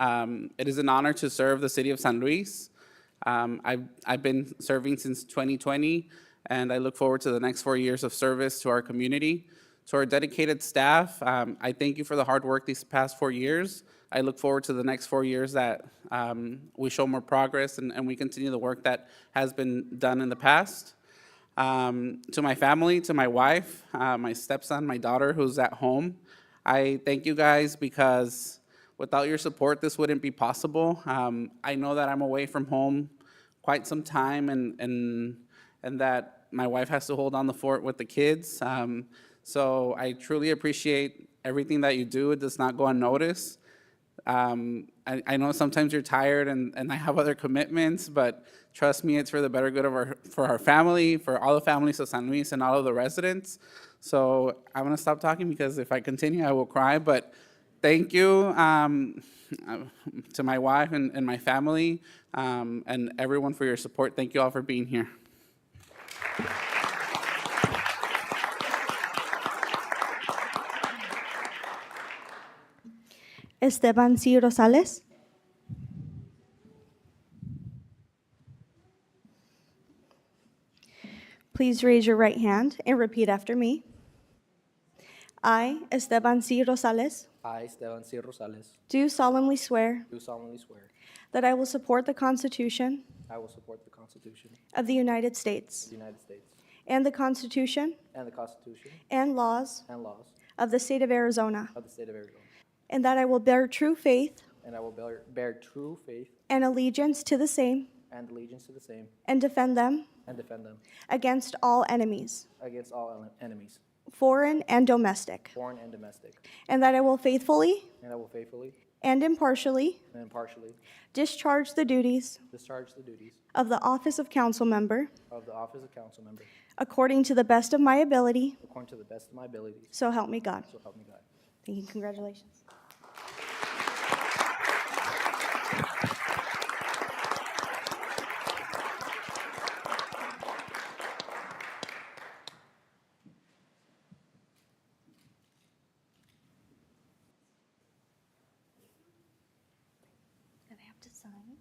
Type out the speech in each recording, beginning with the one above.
Um, It is an honor to serve the city of San Luis. Um, I've, I've been serving since 2020, and I look forward to the next four years of service to our community. To our dedicated staff, um, I thank you for the hard work these past four years. I look forward to the next four years that um, we show more progress and, and we continue the work that has been done in the past um, to my family, to my wife, uh, my stepson, my daughter who's at home. I thank you guys because without your support, this wouldn't be possible. Um, I know that I'm away from home quite some time and, and, and that my wife has to hold on the fort with the kids. Um, so I truly appreciate everything that you do. It does not go unnoticed um, I, I know sometimes you're tired and, and I have other commitments, but trust me, it's for the better good of our, for our family, for all the families of San Luis and all of the residents. So I'm gonna stop talking because if I continue, I will cry, but thank you, um, to my wife and, and my family, um, and everyone for your support. Thank you all for being here. Esteban C. Rosales. Please raise your right hand and repeat after me. I, Esteban C. Rosales, I, Esteban C. Rosales, do solemnly swear do solemnly swear that I will support the Constitution I will support the Constitution of the United of States the United States and the Constitution and the Constitution and laws and laws of the state of Arizona, of the State of Arizona, and that I will bear true faith and I will bear, bear true faith and allegiance to the same and allegiance to the same and defend them and defend them against all enemies. against all ele- enemies, foreign and domestic, foreign and domestic, and that I will faithfully and I will faithfully and impartially and impartially discharge the duties discharge the duties of the office of council member of the office of council member according to the best of my ability, according to the best of my abilities, so help me God. so help me God. Thank you, congratulations. That I have to sign?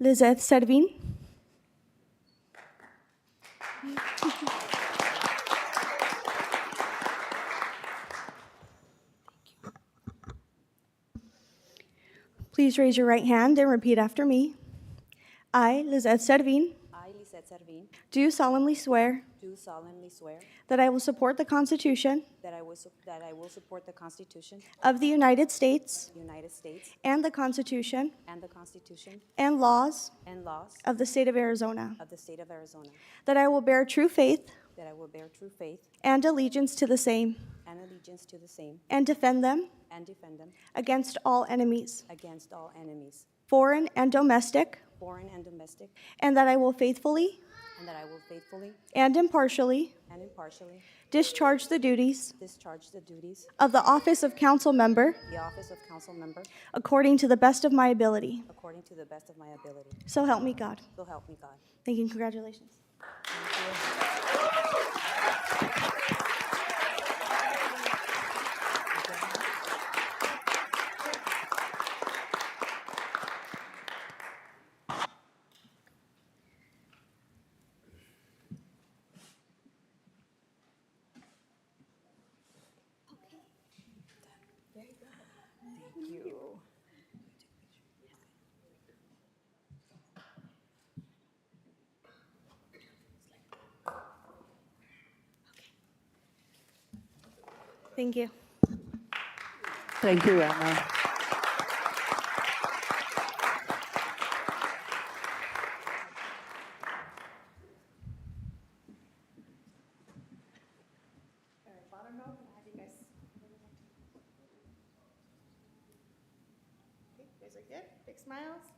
Lizeth Servin. Please raise your right hand and repeat after me. I, Lizeth Servin, I, Lisette Servin, do solemnly swear do solemnly swear that I will support the Constitution that I will, sup- that I will support the Constitution of the United States of the United States and the Constitution and the Constitution and laws and laws of the state of Arizona, of the State of Arizona, that I will bear true faith that I will bear true faith and allegiance to the same, and allegiance to the same, and defend them and defend them against all enemies, against all enemies, foreign and domestic, foreign and domestic, and that I will faithfully and that I will faithfully and impartially and impartially discharge the duties discharge the duties of the office of council member of the office of council member according to the best of my ability. according to the best of my ability. So help me God. So help me God. Thank you and congratulations. Thank you. Thank you, Emma. Okay, you guys are good. Big smiles.